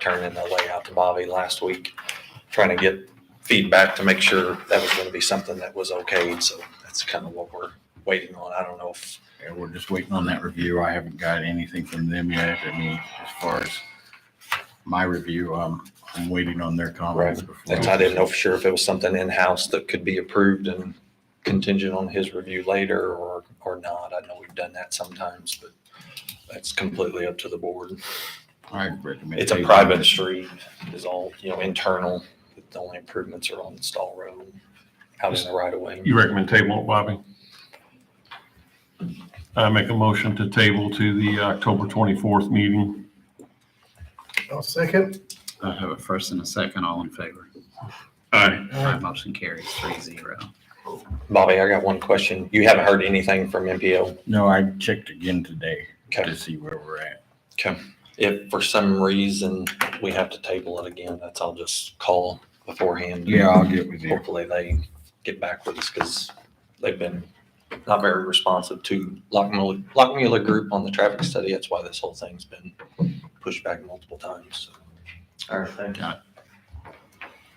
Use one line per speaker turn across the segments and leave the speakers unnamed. turning the layout to Bobby last week, trying to get feedback to make sure that was gonna be something that was okayed, so that's kind of what we're waiting on. I don't know if,
Yeah, we're just waiting on that review. I haven't got anything from them yet. I mean, as far as my review, um, I'm waiting on their comments. before-
that's- I didn't know for sure if it was something in-house that could be approved and contingent on his review later or, or not. I know we've done that sometimes, but that's completely up to the board.
I recommend.
It's a
they-
private street, is all, you know, internal, the only improvements are on the stall road, out in the right of way.
You recommend table it, Bobby? I make a motion to table to the October 24th meeting.
I'll second.
I have a first and a second, all in favor.
Aye.
My motion carries three zero.
Bobby, I got one question. You haven't heard anything from MPO?
No, I checked again today
Okay.
to see where we're at.
If for some reason we have to table it again, that's, I'll just call beforehand.
Yeah, I'll get with you.
Hopefully they get back with us because they've been not very responsive to Lockmuller, Lockmuller Group on the traffic study. That's why this whole thing's been pushed back multiple times. so. All right, thank you.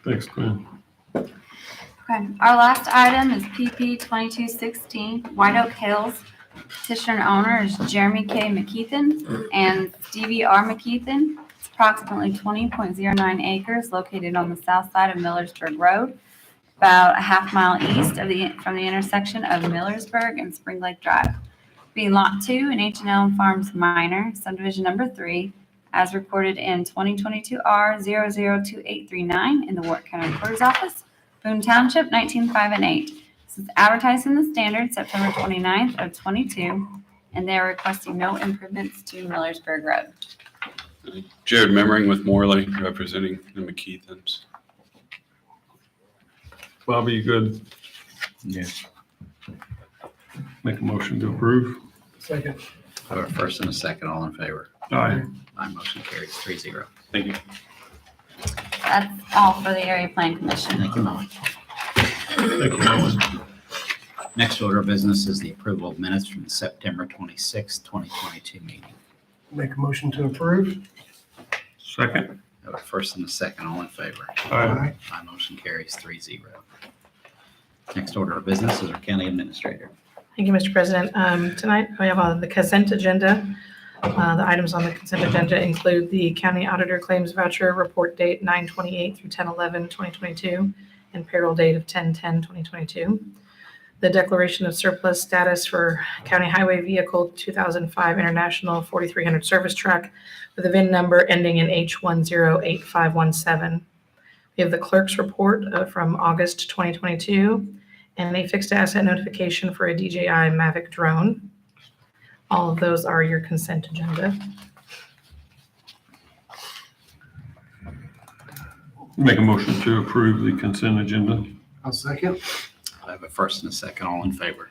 Thanks, Glenn.
Okay, our last item is PP twenty-two sixteen, White Oak Hills. Petitioner and owner is Jeremy K. McKeithen and Stevie R. McKeithen. It's approximately twenty point zero nine acres located on the south side of Millersburg Road, about a half mile east of the, from the intersection of Millersburg and Spring Lake Drive. Being Lot Two in H and L Farms Minor, subdivision number three, as recorded in twenty twenty-two R 2839 in the Warwick County Recorder's Office. Boone Township, 195 and 8. This is advertised in the Standard September 29th of 22, and they are requesting no improvements to Millersburg Road.
Jared Memmering with Morley, representing the McKeithans.
Bobby, you good?
Yes,
Make a motion to approve.
Second.
I have a first and a second, all in favor.
Aye.
My motion carries three zero.
Thank you.
That's all for the Area Plan Commission.
Thank you, Molly.
Thank you, Melvin.
Next order of business is the approval of minutes from the September twenty-sixth, twenty twenty-two meeting.
Make a motion to approve.
Second.
I have a first and a second, all in favor.
Aye.
My motion carries three zero. Next order of business is our county administrator.
Thank you, Mr. President. Um, Tonight, we have on the consent agenda. Uh, The items on the consent agenda include the county auditor claims voucher report date 9/28 through 10/11/2022 and payroll date of 10/10/2022. The declaration of surplus status for county highway vehicle 2005 International 4300 service truck with a VIN number ending in H108517. We have the clerk's report uh, from August 2022 and a fixed asset notification for a DJI Mavic drone. All of those are your consent agenda.
Make a motion to approve the consent agenda.
I'll second.
I have a first and a second, all in favor.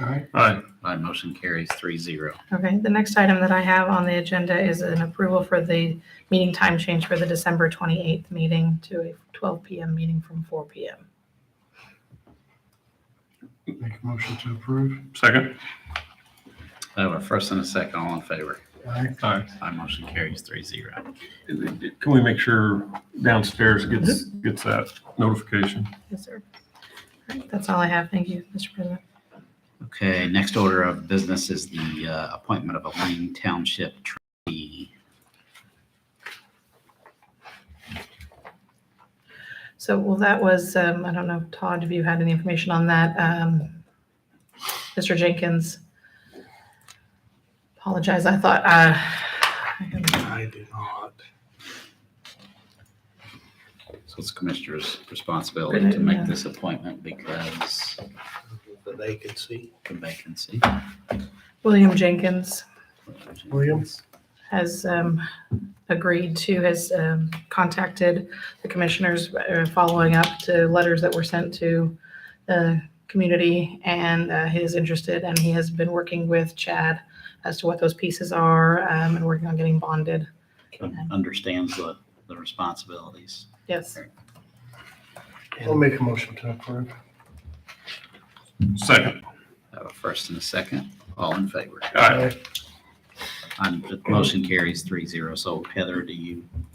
All right.
Aye.
My motion carries three zero.
Okay, the next item that I have on the agenda is an approval for the meeting time change for the December 28th meeting to a 12 PM meeting from 4 PM.
Make a motion to approve.
Second.
I have a first and a second, all in favor.
All right.
Aye.
My motion carries three zero.
Can we make sure downstairs gets, gets that notification?
Yes, sir. All right, That's all I have. Thank you, Mr. President.
Okay, next order of business is the uh, appointment of a Lane Township trustee.
So, well, that was, um, I don't know, Todd, if you had any information on that. Um, Mr. Jenkins, apologize, I thought, uh,
I do not.
So it's commissioner's responsibility to make this appointment because
The vacancy.
of vacancy.
William Jenkins
Williams.
has um, agreed to, has um, contacted the commissioners uh, following up to letters that were sent to the community, and uh, he is interested, and he has been working with Chad as to what those pieces are um, and working on getting bonded.
Understands the, the responsibilities.
Yes.
I'll make a motion to approve.
Second.
I have a first and a second, all in favor.
Aye.
Um, the motion carries three zero. So Heather, do you